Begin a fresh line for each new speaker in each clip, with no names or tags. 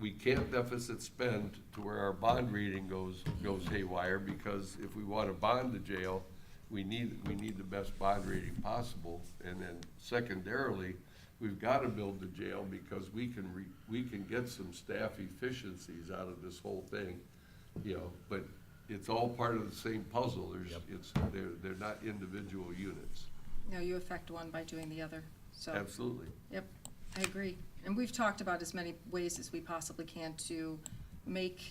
we can't deficit spend to where our bond rating goes, goes haywire, because if we wanna bond the jail, we need, we need the best bond rating possible. And then secondarily, we've gotta build the jail because we can re, we can get some staff efficiencies out of this whole thing, you know, but it's all part of the same puzzle, there's,
Yep.
it's, they're, they're not individual units,
No, you affect one by doing the other, so,
absolutely.
yep, I agree. And we've talked about as many ways as we possibly can to make,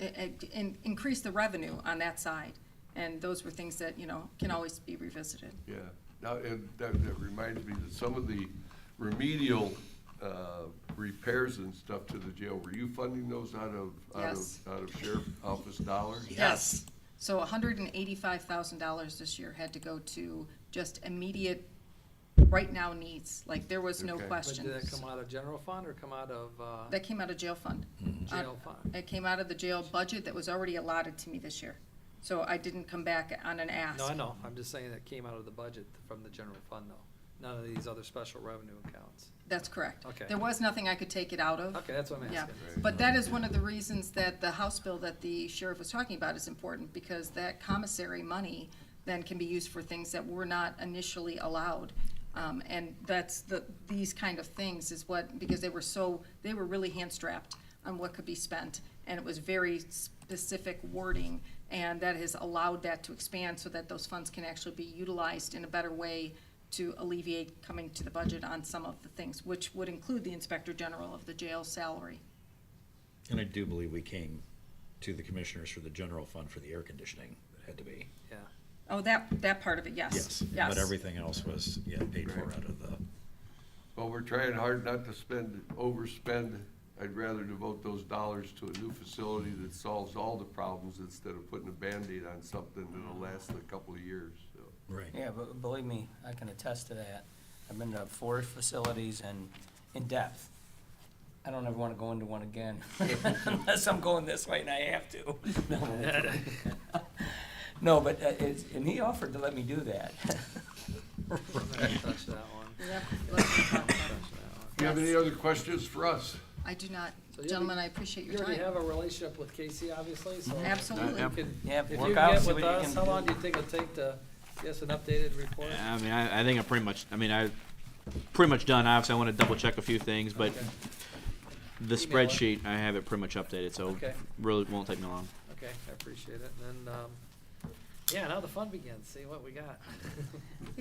i- i- in- increase the revenue on that side. And those were things that, you know, can always be revisited.
Yeah, now, and that, that reminds me that some of the remedial, uh, repairs and stuff to the jail, were you funding those out of, out
Yes.
of, out of sheriff office dollars?
Yes.
So hundred and eighty-five thousand dollars this year had to go to just immediate, right now needs, like, there was no
Okay. But did
But
question.
did that come out of general fund or come out of, uh,
That came out of jail fund. Uh,
jail fund?
It came out of the jail budget that was already allotted to me this year. So I didn't come back on an ask.
No, I know, I'm just saying that came out of the budget from the general fund though, none of these other special revenue accounts.
That's correct.
Okay.
There was nothing I could take it out of.
Okay, that's what I'm
Yeah,
asking.
but that is one of the reasons that the House bill that the sheriff was talking about is important, because that commissary money then can be used for things that were not initially allowed. Um, and that's the, these kind of things is what, because they were so, they were really hand-strapped on what could be spent, and it was very specific wording, and that has allowed that to expand so that those funds can actually be utilized in a better way to alleviate coming to the budget on some of the things, which would include the inspector general of the jail salary.
And I do believe we came to the commissioners for the general fund for the air conditioning, it had to be.
Yeah,
Oh, that, that part of it, yes, yes.
But everything else was, yeah, paid for out of the,
Well, we're trying hard not to spend, overspend, I'd rather devote those dollars to a new facility that solves all the problems instead of putting a Band-Aid on something that'll last a couple of years, so.
right.
Yeah, but believe me, I can attest to that. I've been to four facilities and in depth. I don't ever wanna go into one again, unless I'm going this way and I have to. No. No, but uh, it's, and he offered to let me do that.
I'm gonna touch that one,
Yep, let's not talk about
touch that
it.
one.
Do you have any
Yes.
other questions for us?
I do not,
So you'll be-
gentlemen, I appreciate
You
your
already have
time.
a relationship with Casey, obviously, so.
Absolutely.
You could-
Yeah,
If you
work out,
get
see
with
what you
us,
can
how
do.
long do you think it'll take to, get us an updated report?
I mean, I, I think I'm pretty much, I mean, I, pretty much done, obviously, I wanna double check a few things, but
Okay.
the
Email it.
spreadsheet, I have it pretty much updated, so
Okay.
really won't take me long.
Okay, I appreciate it, and, um, yeah, now the fun begins, see what we got.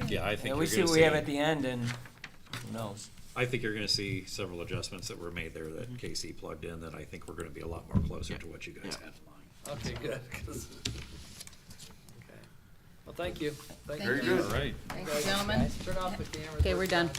Yeah, I
Yeah,
think
we
you're
see
gonna
what we have at
see,
the end and who knows?
I think you're gonna see several adjustments that were made there that Casey plugged in that I think we're gonna be a lot more closer to what you guys
Mm-hmm. Yeah.
have.
Okay, good. 'cause- Okay. Well, thank you. Thank
Very
you.
good.
right.
Thank you, gentlemen.
Turn off the camera.
Okay, we're done.